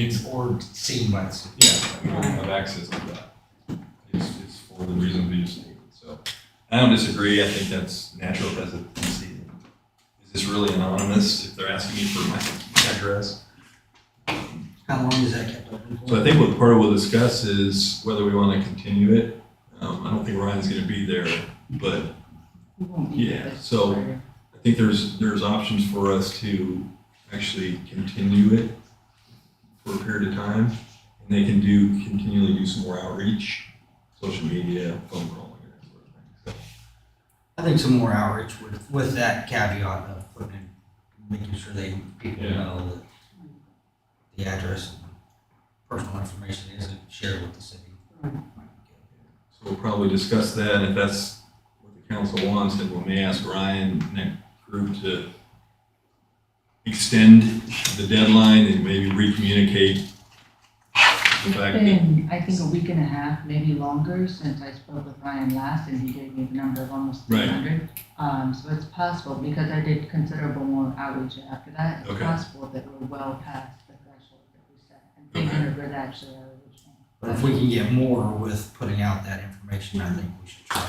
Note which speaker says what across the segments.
Speaker 1: It's or seen by the city.
Speaker 2: Yeah, we don't have access to that. It's, it's for the reason we just stated, so. I don't disagree, I think that's natural hesitancy. Is this really anonymous if they're asking me for my address?
Speaker 3: How long is that kept open for?
Speaker 2: So I think what part we'll discuss is whether we want to continue it. Um, I don't think Ryan's gonna be there, but Yeah, so I think there's, there's options for us to actually continue it for a period of time. And they can do, continually do some more outreach, social media, phone calling, and that sort of thing.
Speaker 3: I think some more outreach with, with that caveat of putting, in- making sure they, people
Speaker 2: Yeah.
Speaker 3: know that the address and personal information isn't shared with the city.
Speaker 2: So we'll probably discuss that, and if that's what the council wants, then we may ask Ryan and that group to extend the deadline and maybe recommunicate the fact that
Speaker 4: Been, I think, a week and a half, maybe longer, since I spoke with Ryan last, and he gave me the number of almost
Speaker 2: Right.
Speaker 4: three hundred. Um, so it's possible, because I did considerable more outreach after that, it's
Speaker 2: Okay.
Speaker 4: possible that we're well past the threshold that we set. And
Speaker 2: Okay.
Speaker 4: three hundred was actually our original.
Speaker 3: But if we can get more with putting out that information, I think we should try.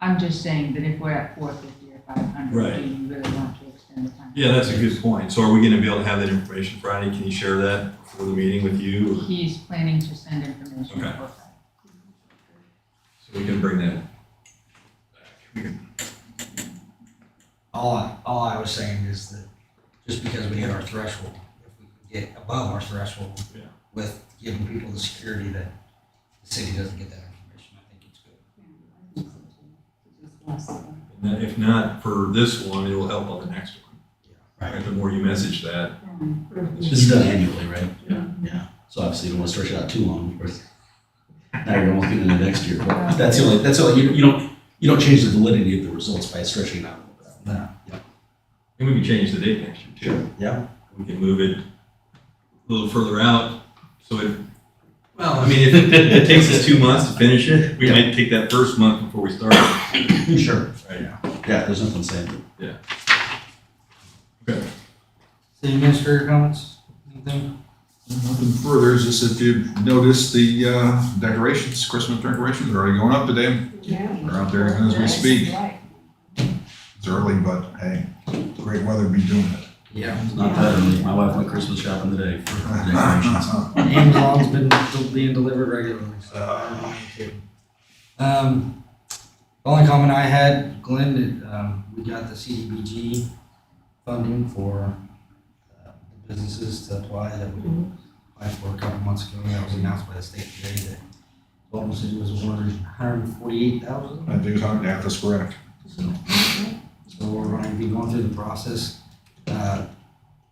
Speaker 4: I'm just saying that if we're at four fifty or five hundred,
Speaker 2: Right.
Speaker 4: do you really want to extend the time?
Speaker 2: Yeah, that's a good point. So are we gonna be able to have that information Friday? Can you share that before the meeting with you? or-
Speaker 4: He's planning to send information
Speaker 2: Okay.
Speaker 4: before Friday.
Speaker 2: So we can bring that. back. We can-
Speaker 3: All I, all I was saying is that just because we hit our threshold, if we can get above our threshold
Speaker 2: Yeah.
Speaker 3: with giving people the security that the city doesn't get that information, I think it's good.
Speaker 2: and then If not for this one, it'll help on the next one.
Speaker 3: Right.
Speaker 2: Right, The more you message that.
Speaker 5: This is done annually, right?
Speaker 2: Yeah.
Speaker 5: Yeah, so obviously you don't want to stretch it out too long, or now you're almost getting into next year. But That's the only, that's the only, you, you don't, you don't change the validity of the results by stretching it out.
Speaker 3: No.
Speaker 2: And we can change the date next year too.
Speaker 5: Yeah.
Speaker 2: We can move it a little further out, so it, well, I mean, if it- it takes us two months to finish it, we might take that first month before we start.
Speaker 5: Sure.
Speaker 2: Right.
Speaker 5: Yeah, there's nothing saying that.
Speaker 3: City administrator comments, anything?
Speaker 6: Nothing further, it's just if you've noticed the uh, decorations, Christmas decorations are already going up today. They're out there as we speak. It's early, but hey, the great weather be doing it.
Speaker 3: Yeah.
Speaker 5: It's not that early. My wife went Christmas shopping today for decorations.
Speaker 3: Amazon's been del- being delivered regularly, so. I don't know. Um, the only comment I had, Glenn, that, um, we got the CDBG funding for, uh, the businesses to apply that we applied for a couple months ago. That was announced by the state today that Baltimore City was awarded hundred and forty-eight thousand.
Speaker 6: I do hunt at this correct.
Speaker 3: So, so we're going to be going through the process. uh,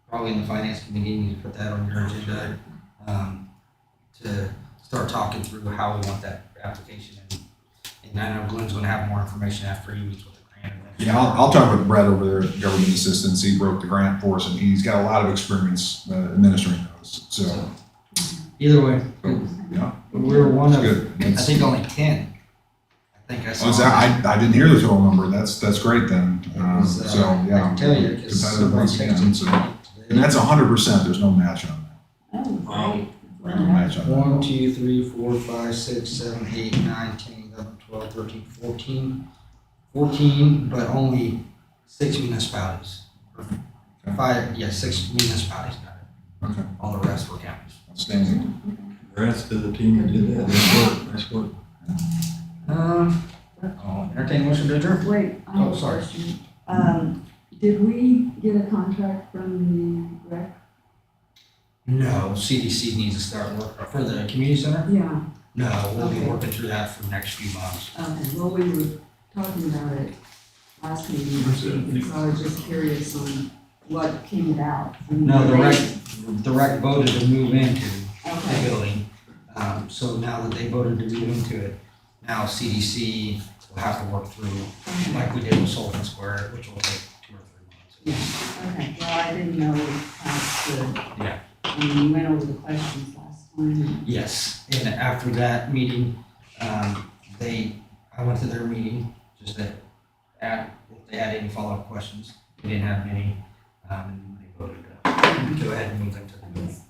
Speaker 3: Probably in the finance committee, you need to put that on your agenda um, to start talking through how we want that application. And- And I know Glenn's going to have more information after he meets with the grant.
Speaker 6: Yeah, I'll, I'll talk with Brett over there at Government Assistance. He broke the grant for us and he's got a lot of experience uh, administering those. So,
Speaker 3: Either way,
Speaker 6: yeah.
Speaker 3: we're one
Speaker 6: it's
Speaker 3: of,
Speaker 6: good.
Speaker 3: I
Speaker 6: It's-
Speaker 3: think only ten. I think I saw.
Speaker 6: Oh, is that- I, I didn't hear the total number. That's, that's great then. Uh,
Speaker 3: was, uh,
Speaker 6: So, yeah.
Speaker 3: I can tell you, because
Speaker 6: competitive
Speaker 3: someone
Speaker 6: once again,
Speaker 3: texted
Speaker 6: so-
Speaker 3: me
Speaker 6: And
Speaker 3: today.
Speaker 6: that's hundred percent. There's no match on
Speaker 7: Oh,
Speaker 2: Um,
Speaker 6: that.
Speaker 3: Uh-huh.
Speaker 6: No match on that.
Speaker 3: One, two, three, four, five, six, seven, eight, nine, ten, eleven, twelve, thirteen, fourteen. Fourteen, but only six municipalities. Five, yeah, six municipalities got it.
Speaker 6: Okay.
Speaker 3: All the rest were counties.
Speaker 6: Outstanding.
Speaker 2: Congrats to the team that did that. Nice work, nice work.
Speaker 3: Um, I'll entertain a motion to adjourn.
Speaker 7: Wait, I have
Speaker 3: Oh,
Speaker 7: a
Speaker 3: sorry.
Speaker 7: question. Um, did we get a contract from the rec?
Speaker 3: No, CDC needs to start work uh, for the community center.
Speaker 7: Yeah,
Speaker 3: No, we'll be
Speaker 7: Okay.
Speaker 3: working through that for the next few months.
Speaker 7: okay, well, we were talking about it last meeting, I
Speaker 2: That's it, I
Speaker 7: think, and
Speaker 2: think.
Speaker 7: so I was just curious on what came about. from
Speaker 3: No, the rec,
Speaker 7: rate.
Speaker 3: the rec voted to move into the
Speaker 7: Okay,
Speaker 3: building. Um, so now that they voted to move into it, now CDC will have to work through
Speaker 7: okay,
Speaker 3: like we did with Sullivan Square, which will take two or three months.
Speaker 7: okay, well, I didn't know how to.
Speaker 3: Yeah.
Speaker 7: And we went over the questions last time.
Speaker 3: Yes, and after that meeting, um, they, I went to their meeting, just to add, if they had any follow-up questions, they didn't have any, um, and they voted to go ahead and move them to the
Speaker 7: I guess
Speaker 3: meeting.